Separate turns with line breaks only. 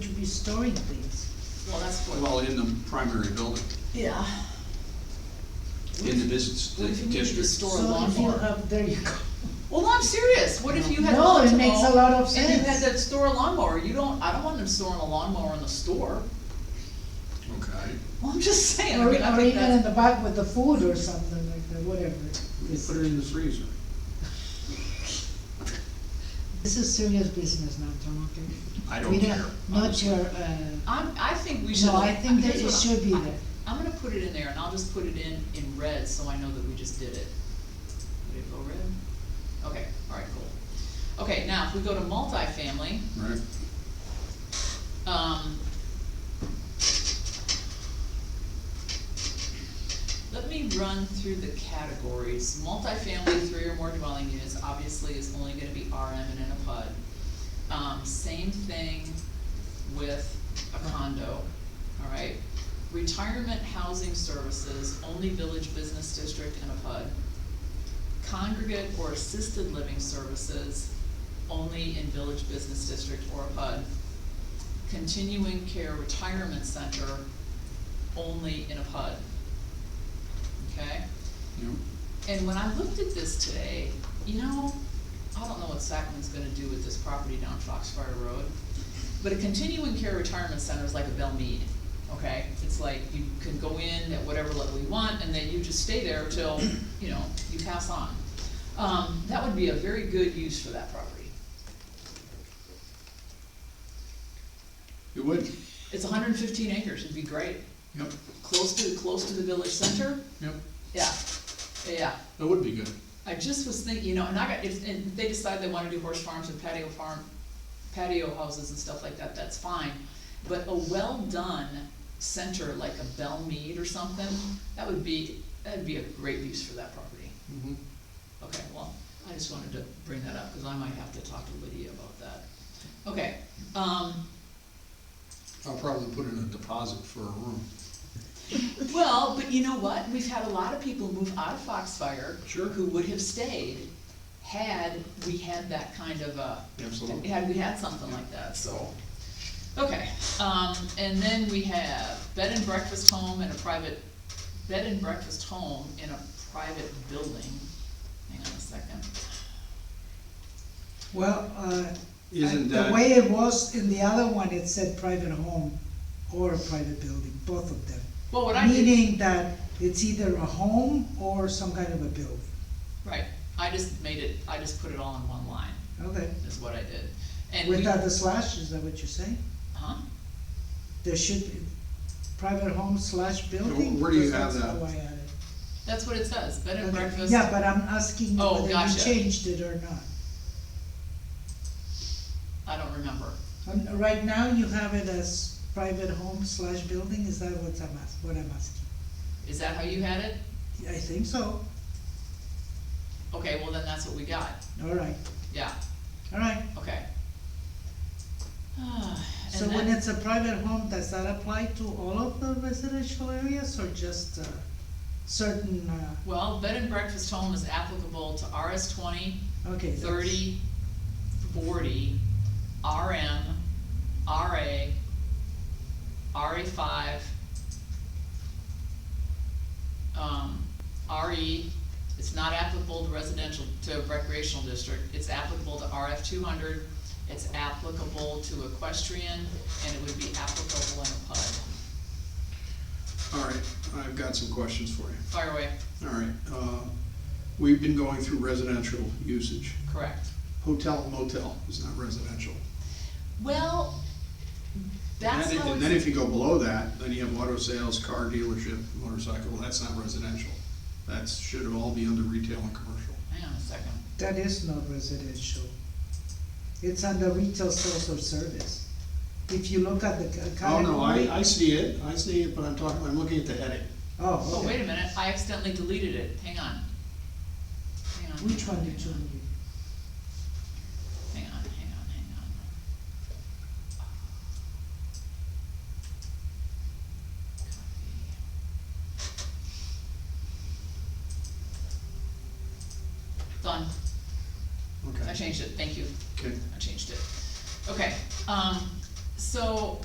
storing things?
Well, that's what.
Well, in the primary building,
Yeah.
in the business
What if you need to
district.
store- Or a
So if you
lawnmower.
have, there you go.
Well, no, I'm serious, what if you had.
No, it
multiple-
makes a lot of
And you
sense.
had that store lawnmower, you don't, I don't want them storing a lawnmower in the store.
Okay,
Well, I'm just saying, I
Or,
mean, I
or
think
even in
that's.
the back with the food or something like that, whatever.
you put it in the freezer.
This is serious business now, Tom, okay?
I
We
don't care.
Not
honestly.
your, uh,
I'm, I think we should.
no, I think that
here's
it
what I-
should be
I-
there.
I'm gonna put it in there, and I'll just put it in, in red, so I know that we just did it. Would it go red? Okay, alright, cool. Okay, now, if we go to multifamily,
Right,
um. Let me run through the categories. Multifamily, three or more dwelling units, obviously is only gonna be RM and in a PUD. Um, same thing with a condo, alright? Retirement housing services, only village business district and a PUD. Congregate or assisted living services, only in village business district or a PUD. Continuing care retirement center, only in a PUD. Okay?
yeah.
And when I looked at this today, you know, I don't know what Sacman's gonna do with this property down Foxfire Road, but a continuing care retirement center is like a Bell Mead, okay? It's like you can go in at whatever level you want, and then you just stay there till, you know, you pass on. Um, that would be a very good use for that property.
It would,
It's hundred and fifteen acres, it'd be great,
yep,
close to, close to the village center,
yep,
yeah, yeah.
that would be good.
I just was thinking, you know, and I got, if, and if they decide they wanna do horse farms and patio farm, patio houses and stuff like that, that's fine. But a well-done center like a Bell Mead or something, that would be, that'd be a great use for that property.
Mhm.
Okay, well, I just wanted to bring that up, cause I might have to talk to Lydia about that. Okay, um,
I'll probably put in a deposit for a room.
well, but you know what? We've had a lot of people move out of Foxfire.
Sure.
Who would have stayed had we had that kind of a.
Absolutely.
Had we had something like that, so. Okay, um, and then we have bed and breakfast home and a private, bed and breakfast home in a private building. Hang on a second.
Well, uh,
Isn't
I-
that-
The way it was in the other one, it said private home or a private building, both of them.
Well, what I did,
Meaning that it's either a home or some kind of a building.
right, I just made it, I just put it all in one line,
Okay.
is what I did. And we,
Without the slash, is that what you're saying?
huh?
There should be private home slash building?
where do you
because
have
that's
that?
how I had it.
That's what it says, bed and
Okay.
breakfast.
Yeah, but I'm asking you
Oh,
whether you
gotcha.
changed it or not.
I don't remember.
Um, Right now, you have it as private home slash building, is that what I'm ask, what I'm asking?
Is that how you had it?
I think so,
Okay, well then that's what we got,
all right,
yeah,
all right.
okay. And
So when
then-
it's a private home, does that apply to all of the residential areas or just uh, certain, uh,
Well, bed and breakfast home is applicable to RS twenty,
okay. that's-
thirty, forty, RM, RA, RA five, um, RE, it's not applicable to residential, to recreational district, it's applicable to RF two hundred, it's applicable to equestrian, and it would be applicable in a PUD.
All right, I've got some questions for you.
Fire away,
All right, uh, we've been going through residential usage.
correct.
Hotel motel is not residential.
Well,
And
that's
then-
how
And then
it's,
if you go below that, then you have auto sales, car dealership, motorcycle, that's not residential. That should all be under retail and commercial.
hang on a second.
That is not residential. It's under retail sales or service. If you look at the c-
Oh,
category.
no, I, I see it, I see it, but I'm talking, I'm looking at the heading.
Oh,
Oh,
okay.
wait a minute, I accidentally deleted it, hang on. Hang on.
Which one did you need?
Hang on, hang on, hang on. Copy. Done, I
Okay,
changed it, thank you,
okay.
I changed it. Okay, um, so